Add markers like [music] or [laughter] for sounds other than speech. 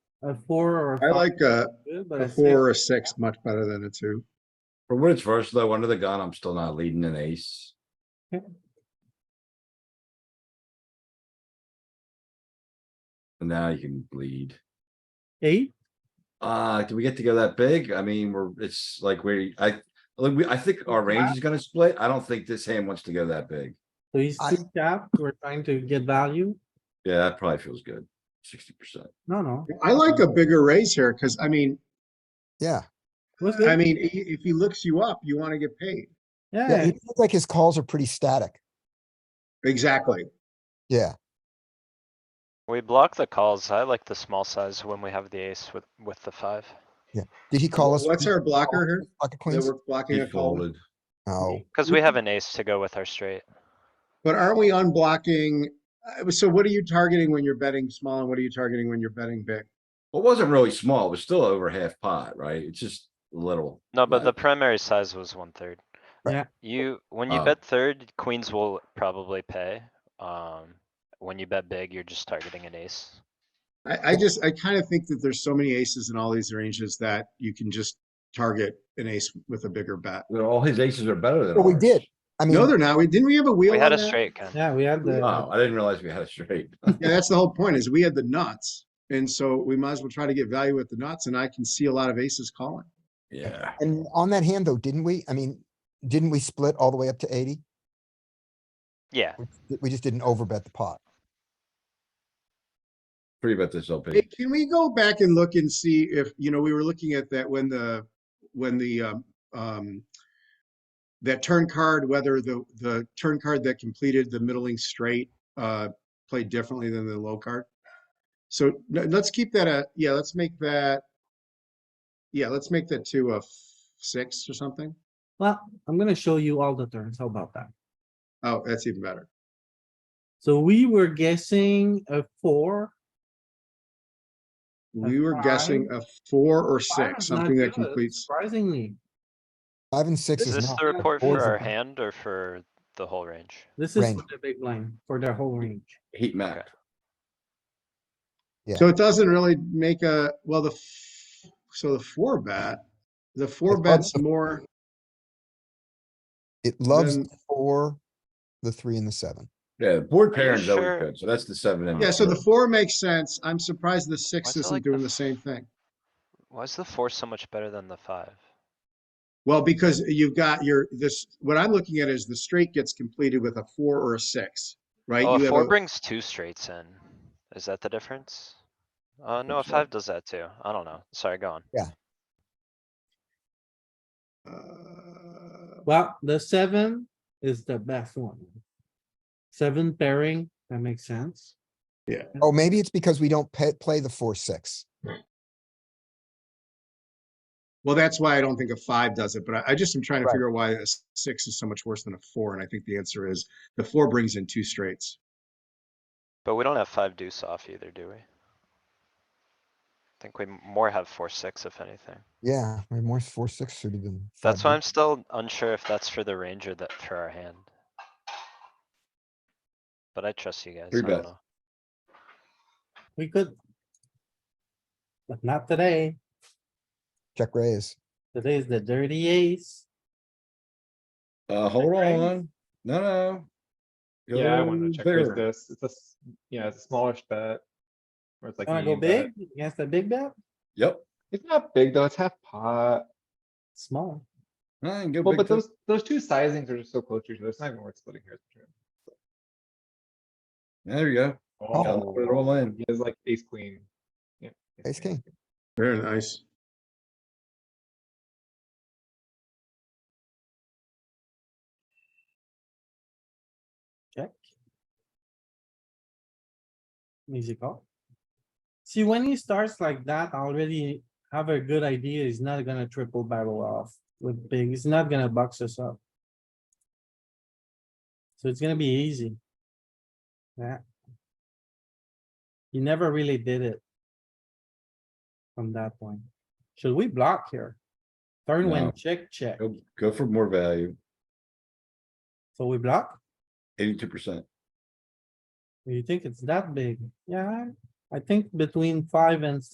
a four or a I five. like a, good, but a six- four or a six much better than a two. For what it's worth, though, under the gun, I'm still not leading an ace. Okay. And now you can bleed. Eight, Uh, do we get to go that big? I mean, we're, it's like we, I, like, we, I think our range is gonna split. I don't think this hand wants to go that big. so he's I- two cap, we're trying to get value. Yeah, that probably feels good. Sixty percent. No, no. I like a bigger raise here, because I mean, Yeah, What's I good? mean, i- if he looks you up, you want to get paid. yeah, Yeah, he feels like his calls are pretty static. Exactly. Yeah, We block the calls. I like the small size when we have the ace with, with the five. did he call us? What's our blocker here? Pocket That queens? we're blocking He a call? folded. No, Cause we Mm-hmm. have an ace to go with our straight. But aren't we unblocking? uh, So what are you targeting when you're betting small and what are you targeting when you're betting big? Well, It wasn't really small. It was still over half pot, right? It's just a little. No, but Right. the primary size was one third. Right. Yeah. You, when you Uh. Oh. bet third, queens will probably pay. Um, when you bet big, you're just targeting an ace. I, I just, I kind of think that there's so many aces in all these ranges that you can just target an ace with a bigger bet. Well, All his aces are better than Well, we ours. did. I mean, No, they're not. We, didn't we have a wheel We had on a that? straight, Ken. yeah, we had the, Oh, I didn't realize we had a [laughs] straight. Yeah, that's the whole point is we had the nuts. And so we might as well try to get value with the nuts and I can see a lot of aces calling. Yeah. and on that hand though, didn't we? I mean, didn't we split all the way up to eighty? Yeah, We just didn't overbet the pot. Pretty about this open. Hey, Can we go back and look and see if, you know, we were looking at that when the, when the, um, um, that turn card, whether the, the turn card that completed the middling straight, uh, played differently than the low card. So no, let's keep that a, yeah, let's make that, yeah, let's make that to a f- six or something. well, I'm gonna show you all the turns, how about that? Oh, that's even better. So we were guessing a four, A We were guessing a four or Five six, is not something that good, completes. Surprisingly, Five and six is is this not. the report Fours for are our fine. hand or for the whole range? this is for Range. the big blind, for their whole range. Heat map. Yeah. So it doesn't really make a, well, the, f- so the four bet, the four It's on bets the- more, It loves Then- the four, the three and the seven. Yeah, the board you pairing's always sure? good, so that's the seven and. yeah, so the two. four makes sense. I'm surprised the six is it isn't like the doing the f- same thing. Why is the four so much better than the five? Well, because you've got your, this, what I'm looking at is the straight gets completed with a four or a six, right? Oh, You a have four a- brings two straights in. Is that the difference? Uh, no, a so. five does that too. I don't know. Sorry, go on. uh, Well, the seven is the best one. Seven pairing, that makes sense. Oh, maybe it's because we don't pay, play the four, six. Well, that's why I don't think a five does it, but I, I just am trying to Right. figure out why a s- six is so much worse than a four. And I think the answer is the four brings in two straights. But we don't have five deuce off either, do we? I think we m- more have four, six, if anything. Yeah, we're more four, six suited than. five That's why big. I'm still unsure if that's for the range or that for our hand. But I trust you guys. I Three don't bet. know. We could. But not today. Check raise. Today is the dirty ace. Uh, hold Right? on, no, no. Yeah, I wanna Go check raise bigger. this. It's a, s- yeah, it's a smallish bet. Where it's like. Wanna go medium bet. big? Against the big bet? Yep, It's not big though, it's half pot. Small. I can go Well, big. but too. those, those two sizings are just so close to each other. It's not even worth splitting here. There you go, Oh. put it all in. He has like ace queen. Yeah, Ace king. Very nice. Easy call. See, when he starts like that, I already have a good idea. He's not gonna triple barrel off with big. He's not gonna box us up. So it's gonna be easy. Yeah. He never really did it. From that point. Should we block here? Turn No. when check, check. Go, go for more value, So we block? eighty-two percent. You think it's that big? Yeah, I think between five and